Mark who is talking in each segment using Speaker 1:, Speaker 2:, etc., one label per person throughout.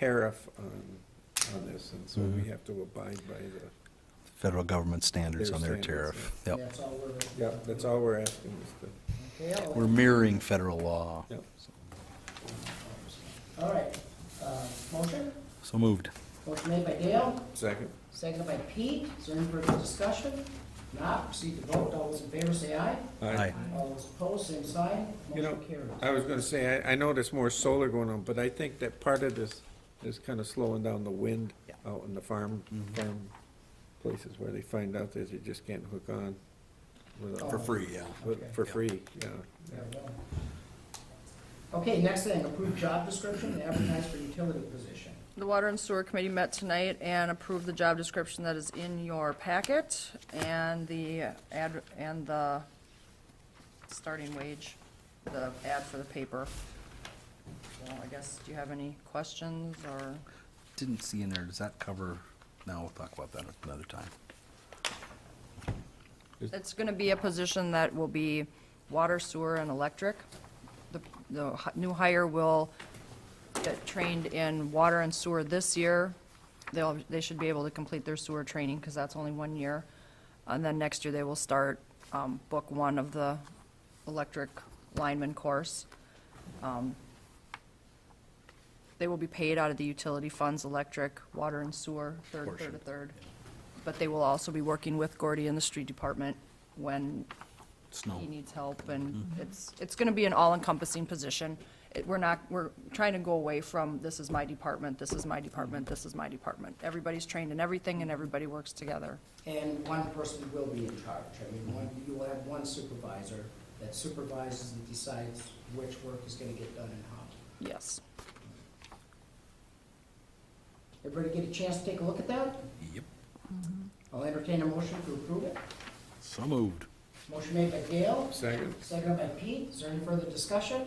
Speaker 1: tariff on, on this, and so
Speaker 2: Mm-hmm.
Speaker 1: we have to abide by the,
Speaker 2: federal government standards
Speaker 1: Their
Speaker 2: on their
Speaker 1: standards,
Speaker 2: tariff. Yep.
Speaker 3: That's all we're.
Speaker 1: yeah, that's all we're asking is the,
Speaker 3: Okay, I'll-
Speaker 2: We're mirroring federal law.
Speaker 1: yeah.
Speaker 3: all right, uh, motion,
Speaker 2: So moved.
Speaker 3: motion made by Dale,
Speaker 1: Second?
Speaker 3: seconded by Pete, is there any further discussion? Not, proceed to vote, all those in favor say aye,
Speaker 2: Aye.
Speaker 3: all those opposed, same sign,
Speaker 1: You know,
Speaker 3: motion carries.
Speaker 1: I was gonna say, I, I know there's more solar going on, but I think that part of this is kinda slowing down the wind
Speaker 2: Yeah. Mm-hmm.
Speaker 1: out in the farm, farm places where they find out that they just can't hook on without-
Speaker 2: For free, yeah.
Speaker 1: with- for
Speaker 2: Yeah.
Speaker 1: free, yeah.
Speaker 3: There we go. Okay, next thing, approved job description, and advertise for utility position.
Speaker 4: The Water and Sewer Committee met tonight and approved the job description that is in your packet and the ad, and the starting wage, the ad for the paper. So I guess, do you have any questions or?
Speaker 2: Didn't see in there, does that cover, no, we'll talk about that another time.
Speaker 4: It's gonna be a position that will be water, sewer, and electric. The, the h- new hire will get trained in water and sewer this year. They'll, they should be able to complete their sewer training, because that's only one year. And then next year, they will start, um, book one of the electric lineman course. Um, They will be paid out of the utility funds, electric, water and sewer, third, third,
Speaker 2: Portion.
Speaker 4: a third. But they will also be working with Gordy in the street department when
Speaker 2: Snow.
Speaker 4: he needs help, and it's, it's gonna be an all-encompassing position. It, we're not, we're trying to go away from, this is my department, this is my department, this is my department. Everybody's trained in everything and everybody works together.
Speaker 3: And one person will be in charge, I mean, one, you will have one supervisor that supervises and decides which work is gonna get done and how.
Speaker 4: Yes.
Speaker 3: Everybody get a chance to take a look at that?
Speaker 2: Yep.
Speaker 3: I'll entertain a motion to approve it.
Speaker 2: So moved.
Speaker 3: Motion made by Gail,
Speaker 1: Second?
Speaker 3: seconded by Pete, is there any further discussion?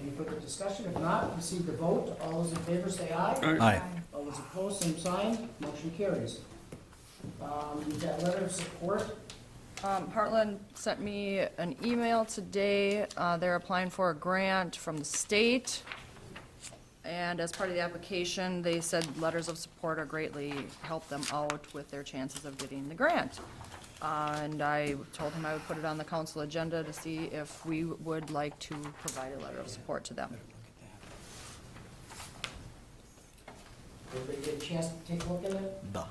Speaker 3: Any further discussion, if not, proceed to vote, all those in favor say aye.
Speaker 2: Aye.
Speaker 3: All those opposed, same sign, motion carries. Um, you've got letter of support
Speaker 4: Um, Heartland sent me an email today. Uh, they're applying for a grant from the state. And as part of the application, they said letters of support are greatly help them out with their chances of getting the grant. Uh, and I told him I would put it on the council agenda to see if we would like to provide a letter of support to them.
Speaker 3: Everybody get a chance to take a look at it?
Speaker 2: Duh.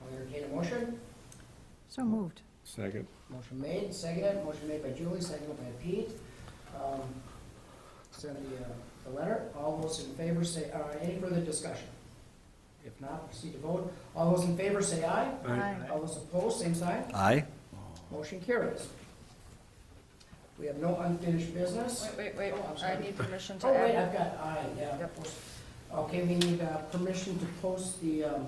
Speaker 3: I'll entertain a motion.
Speaker 4: So moved.
Speaker 1: Second?
Speaker 3: Motion made, seconded, motion made by Julie, seconded by Pete. Um, Send the, uh, the letter. All those in favor say, uh, any further discussion? If not, proceed to vote. All those in favor say aye.
Speaker 1: Aye.
Speaker 3: All those opposed, same sign.
Speaker 2: Aye?
Speaker 3: Motion carries. We have no unfinished business.
Speaker 4: Wait, wait, wait,
Speaker 3: Oh, I'm sorry.
Speaker 4: I need permission to
Speaker 3: Oh, wait,
Speaker 4: add
Speaker 3: I've got aye, yeah.
Speaker 4: Yep.
Speaker 3: Okay, we need, uh, permission to post the, um,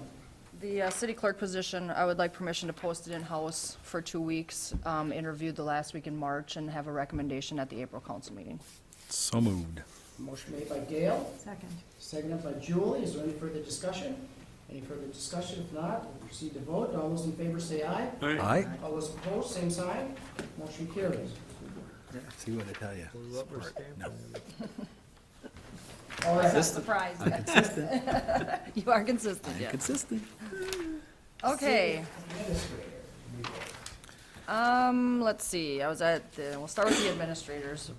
Speaker 4: The uh, city clerk position, I would like permission to post it in-house for two weeks, um, interviewed the last week in March, and have a recommendation at the April council meeting.
Speaker 2: So moved.
Speaker 3: motion made by Gail.
Speaker 5: Second.
Speaker 3: Seconded by Julie, is there any further discussion? Any further discussion, if not, we'll proceed to vote, all those in favor say aye.
Speaker 2: Aye?
Speaker 3: All those opposed, same sign, motion carries.
Speaker 2: See what I tell you? No.
Speaker 3: All right,
Speaker 4: Surprise. You are consistent, yes.
Speaker 2: Consistent.
Speaker 4: Okay,
Speaker 3: administrator.
Speaker 4: um, let's see, I was at the, we'll start with the administrators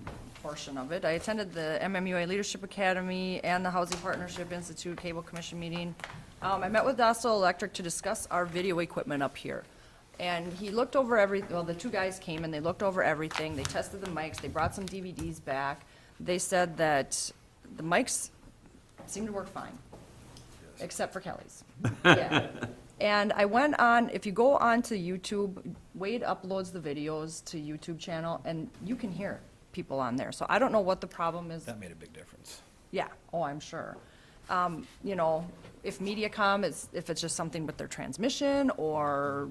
Speaker 4: portion of it. I attended the MMUA Leadership Academy and the Housing Partnership Institute Cable Commission meeting. Um, I met with Dassel Electric to discuss our video equipment up here. And he looked over every, well, the two guys came and they looked over everything, they tested the mics, they brought some DVDs back. They said that the mics seemed to work fine, except for Kelly's. Yeah. And I went on, if you go on to YouTube, Wade uploads the videos to YouTube channel, and you can hear people on there. So I don't know what the problem is.
Speaker 2: That made a big difference.
Speaker 4: Yeah, oh, I'm sure. Um, you know, if MediaCom is, if it's just something with their transmission, or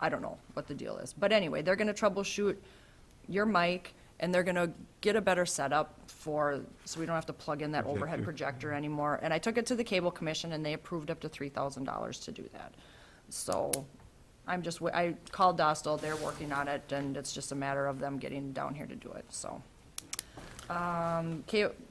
Speaker 4: I don't know what the deal is. But anyway, they're gonna troubleshoot your mic, and they're gonna get a better setup for, so we don't have to plug in that overhead projector anymore. And I took it to the Cable Commission, and they approved up to three thousand dollars to do that. So, I'm just, wa- I called Dostal, they're working on it, and it's just a matter of them getting down here to do it, so. Um, K-